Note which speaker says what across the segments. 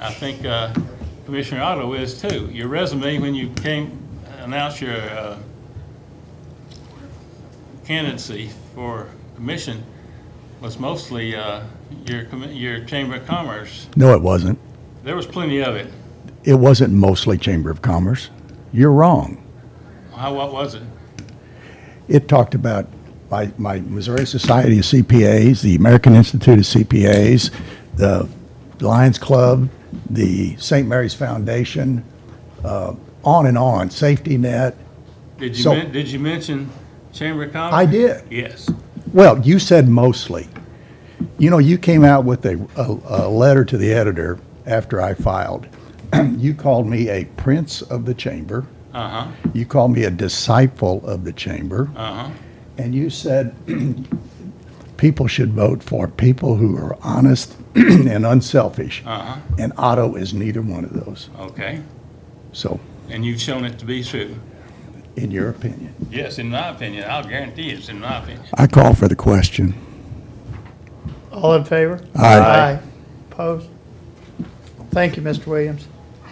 Speaker 1: I think uh, Commissioner Otto is too. Your resume, when you came, announced your uh, candidacy for commission, was mostly uh, your, commi- your Chamber of Commerce.
Speaker 2: No, it wasn't.
Speaker 1: There was plenty of it.
Speaker 2: It wasn't mostly Chamber of Commerce. You're wrong.
Speaker 1: How, what was it?
Speaker 2: It talked about my, my Missouri Society of CPAs, the American Institute of CPAs, the Lions Club, the St. Mary's Foundation, uh, on and on, Safety Net.
Speaker 1: Did you,
Speaker 2: So-
Speaker 1: men- did you mention Chamber of Commerce?
Speaker 2: I did.
Speaker 1: Yes.
Speaker 2: Well, you said mostly. You know, you came out with a, a, a letter to the editor after I filed. you called me a prince of the chamber.
Speaker 1: Uh-huh,
Speaker 2: You called me a disciple of the chamber.
Speaker 1: uh-huh.
Speaker 2: And you said people should vote for people who are honest and unselfish.
Speaker 1: Uh-huh.
Speaker 2: And Otto is neither one of those.
Speaker 1: Okay.
Speaker 2: So,
Speaker 1: And you've shown it to be true.
Speaker 2: in your opinion,
Speaker 1: Yes, in my opinion. I'll guarantee it's in my opinion.
Speaker 2: I call for the question.
Speaker 3: All in favor?
Speaker 2: Aye.
Speaker 3: Opposed? Thank you, Mr. Williams.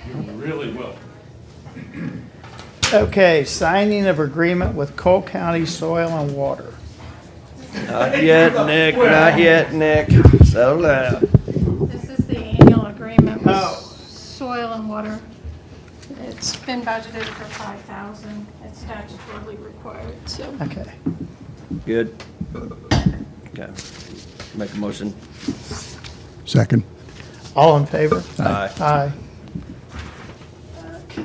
Speaker 1: You're really welcome.
Speaker 3: Okay, signing of agreement with Cole County Soil and Water.
Speaker 4: Not yet, Nick, not yet, Nick. Settle down.
Speaker 5: This is the annual agreement with
Speaker 3: Oh.
Speaker 5: soil and water. It's been budgeted for five thousand. It's statutorily required, so.
Speaker 3: Okay.
Speaker 4: Good. Okay. Make a motion.
Speaker 2: Second.
Speaker 3: All in favor?
Speaker 4: Aye.
Speaker 3: Aye. Okay.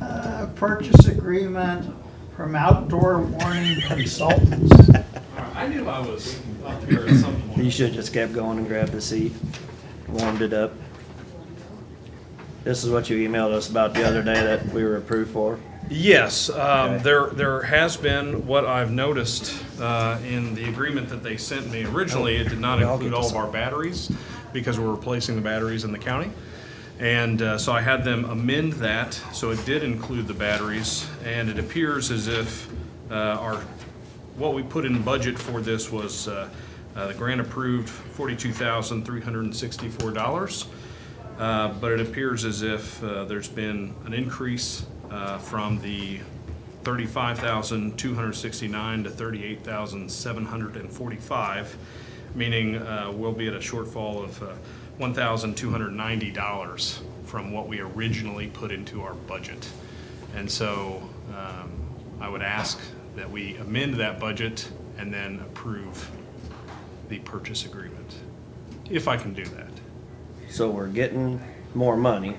Speaker 3: uh, Purchase agreement from Outdoor Warning Consultants.
Speaker 6: I knew I was up here at some point.
Speaker 4: You should just kept going and grabbed the seat, warmed it up. This is what you emailed us about the other day that we were approved for.
Speaker 6: Yes, um,
Speaker 4: Okay.
Speaker 6: there, there has been, what I've noticed uh, in the agreement that they sent me originally, it did not
Speaker 4: Oh, I'll
Speaker 6: include
Speaker 4: get
Speaker 6: all
Speaker 4: this
Speaker 6: of our batteries, because we're replacing the batteries in the county. And uh, so I had them amend that, so it did include the batteries, and it appears as if uh, our, what we put in budget for this was uh, uh, the grant approved forty-two thousand, three hundred and sixty-four dollars. Uh, But it appears as if uh, there's been an increase uh, from the 35,269 to 38,745, meaning uh, we'll be at a shortfall of uh, $1,290 from what we originally put into our budget. And so um, I would ask that we amend that budget and then approve the purchase agreement, if I can do that.
Speaker 4: So we're getting more money,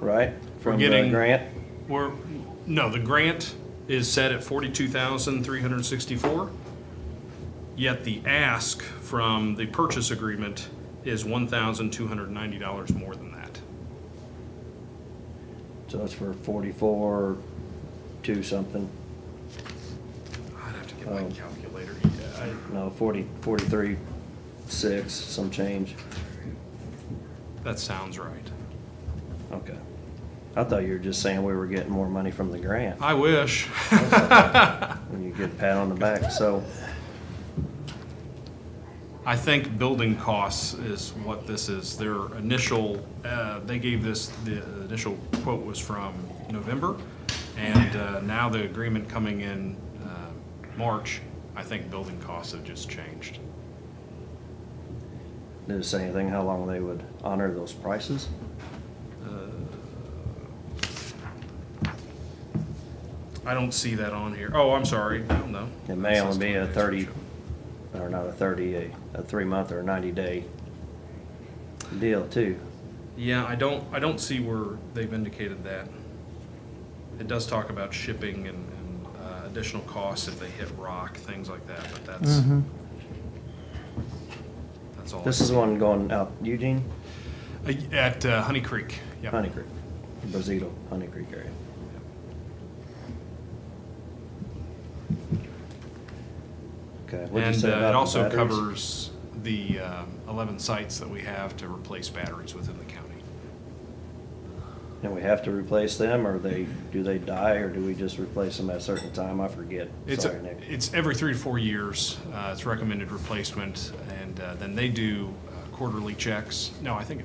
Speaker 4: right? From the
Speaker 6: getting-
Speaker 4: grant?
Speaker 6: We're, no, the grant is set at forty-two thousand, three hundred and sixty-four. Yet the ask from the purchase agreement is one thousand, two hundred and ninety dollars more than that.
Speaker 4: So it's for forty-four, two something,
Speaker 6: I'd have to get my
Speaker 4: Oh.
Speaker 6: calculator. Yeah, I-
Speaker 4: no, forty, forty-three, six, some change.
Speaker 6: That sounds right.
Speaker 4: Okay. I thought you were just saying we were getting more money from the grant.
Speaker 6: I wish.
Speaker 4: When you get a pat on the back, so,
Speaker 6: I think building costs is what this is. Their initial, uh, they gave this, the initial quote was from November, and uh, now the agreement coming in uh, March, I think building costs have just changed.
Speaker 4: did it say anything how long they would honor those prices?
Speaker 6: I don't see that on here. Oh, I'm sorry. I don't know.
Speaker 4: It may only be a thirty, or not a thirty, a, a three-month or a ninety-day deal too.
Speaker 6: Yeah, I don't, I don't see where they've indicated that. It does talk about shipping and and, uh, additional costs if they hit rock, things like that, but that's, that's all. I
Speaker 4: This is one going out Eugene,
Speaker 6: Uh, At uh, Honey Creek, yeah.
Speaker 4: Honey Creek, Brazil, Honey Creek area. Okay, what'd you
Speaker 6: And
Speaker 4: say
Speaker 6: uh, it
Speaker 4: about the
Speaker 6: also
Speaker 4: batteries?
Speaker 6: covers the um, 11 sites that we have to replace batteries within the county.
Speaker 4: And we have to replace them, or they, do they die, or do we just replace them at a certain time? I forget.
Speaker 6: It's,
Speaker 4: Sorry, Nick.
Speaker 6: it's every three to four years, uh, it's recommended replacement, and uh, then they do uh, quarterly checks. No, I think